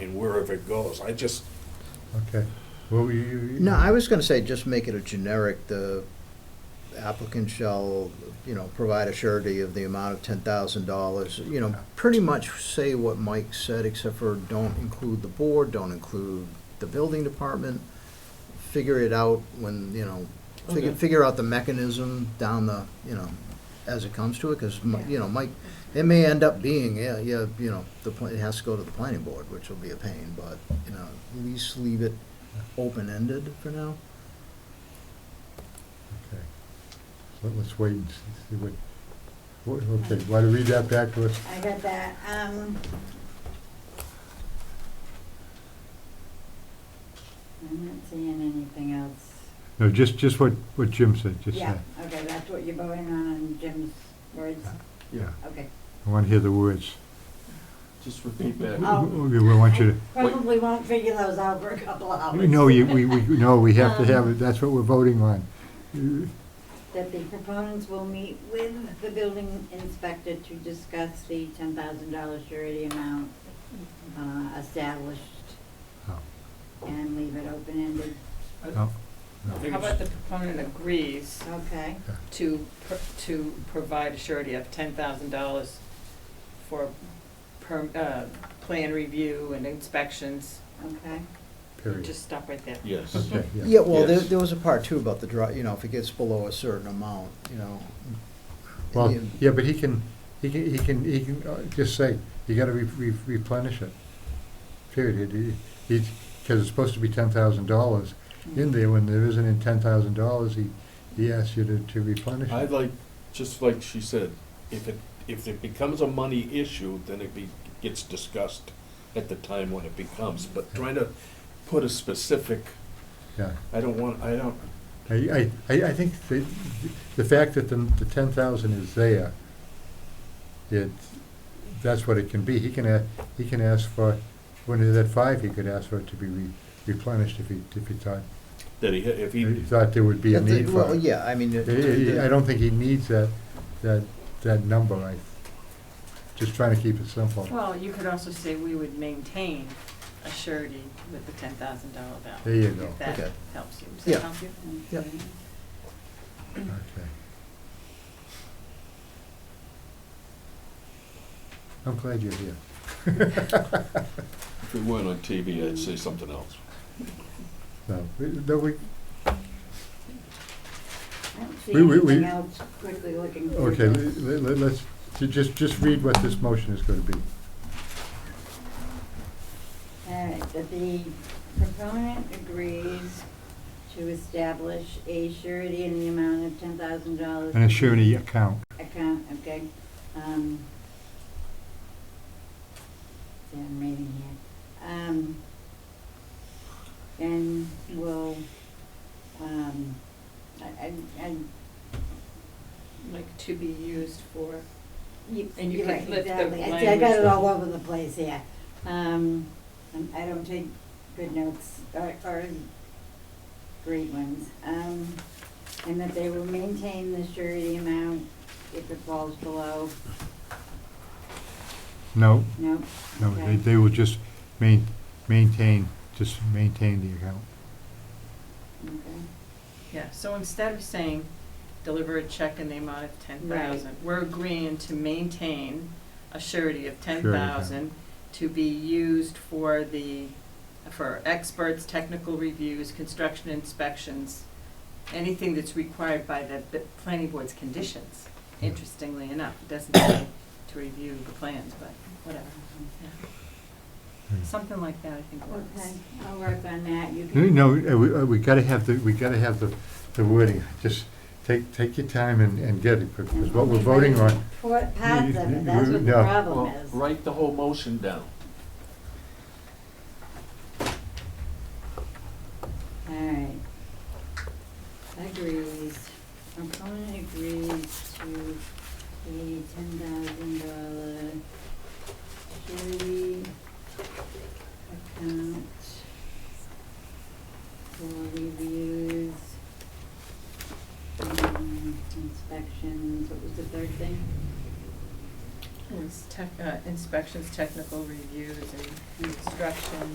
wherever it goes. I just, Okay. Well, you, you. No, I was gonna say, just make it a generic, the applicant shall, you know, provide a surety of the amount of ten thousand dollars, you know, pretty much say what Mike said, except for don't include the board, don't include the building department, figure it out when, you know, figure, Okay. figure out the mechanism down the, you know, as it comes to it, because, you know, Mike, it may end up being, yeah, yeah, you know, the, pla- it has to go to the planning board, which will be a pain, but, you know, at least leave it open-ended for now. Okay. So Let's wait and see- see what, what- okay, why don't you read that back to us? I got that, um. I'm not seeing anything else. No, just, just what, what Jim said, just Yeah, that. okay, that's what you're voting on, on Jim's words, Yeah. okay. I want to hear the words. Just repeat We back. Oh. we- we want you Probably won't figure those out for a couple to, hours. no, you, we, we, no, we have to have Um, it, that's what we're voting on. You- That the proponents will meet with the building inspector to discuss the ten thousand dollar surety amount, uh, established oh, and leave it open-ended, no, I oh, no. think uh, it's- How about the proponent agrees okay? to, pr- to provide a surety of ten thousand dollars for per, uh, plan review and inspections? Okay, Period. Just stop right there. Yes. Okay, yeah. Yeah, well, there, Yes. there was a part too about the draw, you know, if it gets below a certain amount, you know. Well, you- yeah, but he can, he can, he can, he can uh, just say, you gotta re- re- replenish it. Period. He- He, because it's supposed to be ten thousand dollars. In there, when there isn't in ten thousand dollars, he, he asks you to, to replenish I'd it. like, just like she said, if it, if it becomes a money issue, then it be, gets discussed at the time when it becomes, but trying to put a specific, Yeah. I don't want, I don't, I, I, I I think the, the fact that the, the ten thousand is there, it, that's what it can be. He can a, he can ask for, when he's at five, he could ask for it to be re- replenished if he, if he thought, that he, if he he, thought there would be a But the- need for Well, it. yeah, I mean. it- I- I I don't think he needs that, that, that number. I, just trying to keep it simple. Well, you could also say we would maintain a surety with the ten thousand dollar value. There you go. If that Okay. helps you. Does that Yeah. help you? Yep. okay. Okay. I'm glad you're here. if we weren't on TV, I'd say something else. No, we- no, we, I don't see We- we- we- anything else quickly looking through Okay, this. let- let- let's, ju- just, just read what this motion is going to be. All right, that the proponent agrees to establish a surety in the amount of ten thousand dollars. An surety account. Account, okay, um. see, I'm reading here, um. And will, um, I, I, I. Like to be used for, You- And you you're can right, lift the exactly. I see, I got language. it all over the place, yeah. Um, um, I don't take good notes, or, or great ones. Um, and that they will maintain the surety amount if it falls below, No, no, no, Okay. they, they will just main, maintain, just maintain the account. okay, yeah, so instead of saying deliver a check in the amount of ten thousand, we're agreeing to maintain a surety of ten thousand to be used for the, for experts, technical reviews, construction inspections, anything that's required by the, the planning board's conditions, interestingly enough, it doesn't say to review the plans, but whatever, something like that I think works. okay, I'll work on that, you can. No, uh, we, uh, we gotta have the, we gotta have the, the wording, just take, take your time and, and get it, because what we're voting on, What parts of it, that's what the No. problem Well, is. write the whole motion down. Alright. Agrees, opponent agrees to a ten thousand dollar surety account for reviews, um, inspections, what was the third thing? It's tech, uh, inspections, technical reviews, and construction